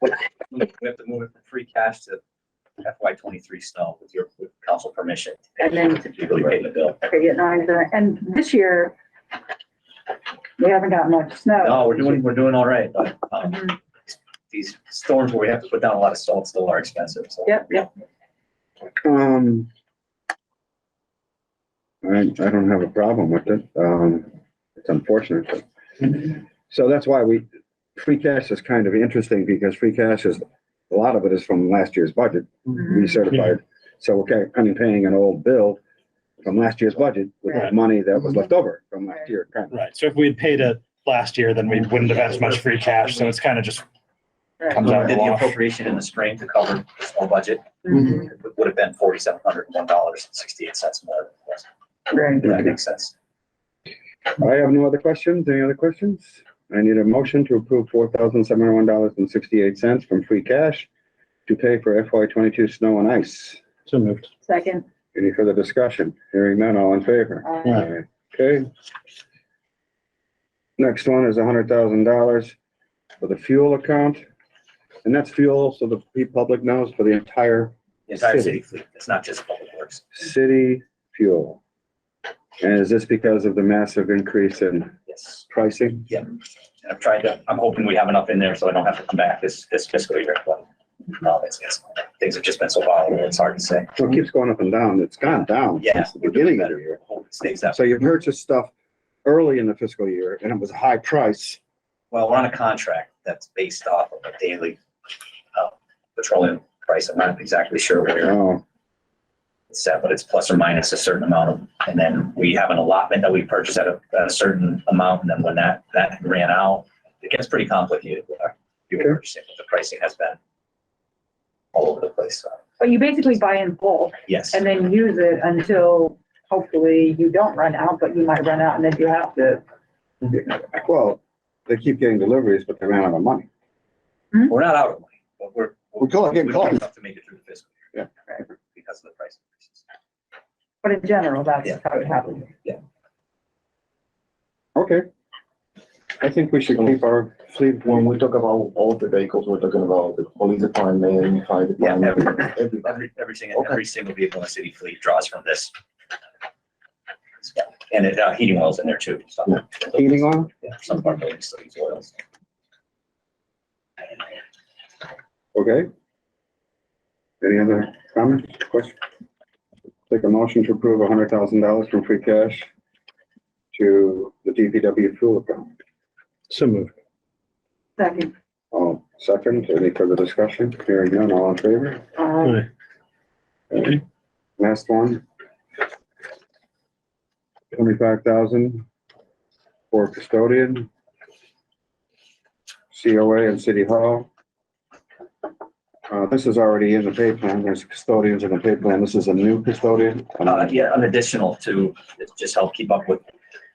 We have to move it from free cash to FY twenty-three snow with your, with council permission. And then- To really pay the bill. Okay, and I- uh, and this year, we haven't got much snow. No, we're doing, we're doing all right, but, um, these storms where we have to put down a lot of salt still are expensive, so. Yep, yep. Um. I, I don't have a problem with it. Um, it's unfortunate. but- So that's why we, free cash is kind of interesting because free cash is, a lot of it is from last year's budget, Mm-hmm. recertified. So we're kind kind of paying an old bill from last year's budget with the Right. money that was left over from last year. kind of. Right, so if we had paid it last year, then we wouldn't have had as much free cash, so it's kind of just, Right. Comes We out Did in the the wash. appropriation in the spring to cover the small budget, Mhm, it would have been forty-seven hundred and one dollars and sixty-eight cents more. Right. If that makes sense. I have no other questions. Any other questions? I need a motion to approve four thousand seven hundred one dollars and sixty-eight cents from free cash to pay for FY twenty-two snow and ice. So moved. Second, Any further discussion? Hearing none, all in favor? uh, Okay. Next one is hundred thousand dollars for the fuel account. And that's fuel, so the pe- public knows, for the entire The Entire City. city fleet, it's not just public works. city fuel. And is this because of the massive increase in Yes. pricing? And I'm trying to, I'm hoping we have enough in there so I don't have to come back this, this fiscal year, but no, it's, it's, things have just been so volatile, it's hard to say. So it keeps going up and down. It's gone down Yeah. since the we're doing beginning of the better. year. Hope it stays that. So way. you purchased stuff early in the fiscal year and it was a high price. Well, we're on a contract that's based off of a daily uh, petroleum price. I'm not exactly sure where Oh, it's set, but it's plus or minus a certain amount. of- And then we have an allotment that we purchase at a, at a certain amount. And then when that, that ran out, it gets pretty complicated with our fuel Sure. purchasing. The pricing has been all over the place. So, but you basically buy in bulk Yes. and then use it until hopefully you don't run out, but you might run out and then you have to. well, they keep getting deliveries, but they ran out of money. We're not out of money, but we're. We're close, getting we don't close. have To make it through the fiscal year. Yeah. Because of the price. increases. But in general, that's Yeah. how it happens. Okay. I think we should keep our fleet When one. we talk about all the vehicles, we're talking about the police department, fire Yeah, every- department, everybody. Every, everything, Okay. every single vehicle in the city fleet draws from this. And it, uh, heating oil's in there too. so- Heating oil? Yeah, Some of our buildings still use oils. Okay. Any other comments, questions? Take a motion to approve hundred thousand dollars from free cash to the DPW fuel account. So moved. Second, Oh, second, any further discussion? Hearing none, all in favor? uh, Last one. Twenty-five thousand for custodian. COA and City Hall. Uh, this is already in the pay plan. There's custodians in the pay plan. This is a new custodian. Um, Uh, yeah, an additional to just help keep up with,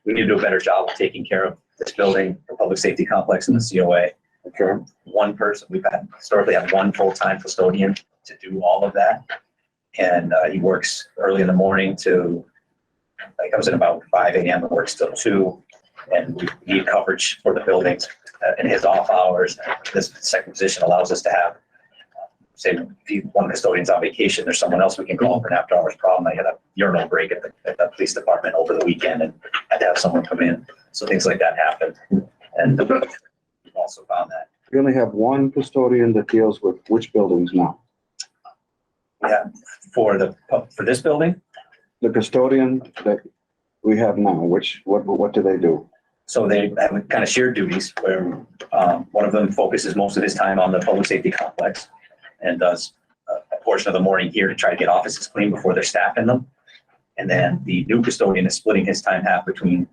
we need to do a better job of taking care of this building, the public safety complex and the COA. Okay, one person, we've had, historically had one full-time custodian to do all of that. And uh, he works early in the morning to, like, comes in about five AM and works till two. And we need coverage for the buildings uh, in his off hours. This second position allows us to have, uh, say, if you- one custodian's on vacation, there's someone else we can call for an after-hours problem. I had a urinal break at the, at the police department over the weekend and had to have someone come in. So things like that happen. And we've also found that we only have one custodian that deals with which buildings now. for the, pub- for this building. The custodian that we have now, which, what, what do they do? So they have kind of shared duties where um, one of them focuses most of his time on the public safety complex and does a- a portion of the morning here to try to get offices clean before they're staffing them. And then the new custodian is splitting his time half between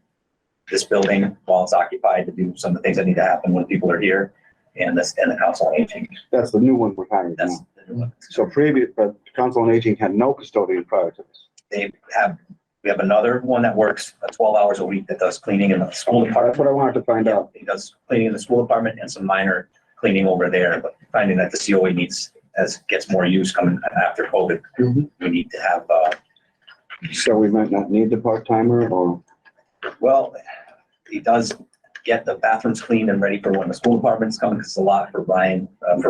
this building while it's occupied to do some of the things that need to happen when people are here and this, and the council on aging. That's the new one we're hiring That's, now. So previous, but Council on Aging had no custodian prior to this. they have, we have another one that works twelve hours a week that does cleaning in the school department. That's what I wanted to find Yeah, out. he does cleaning in the school department and some minor cleaning over there, but finding that the COA needs, as gets more use coming after COVID, Mhm. we need to have, uh, So we might not need the part timer or, well, he does get the bathrooms cleaned and ready for when the school department's coming, because it's a lot for Ryan, uh, for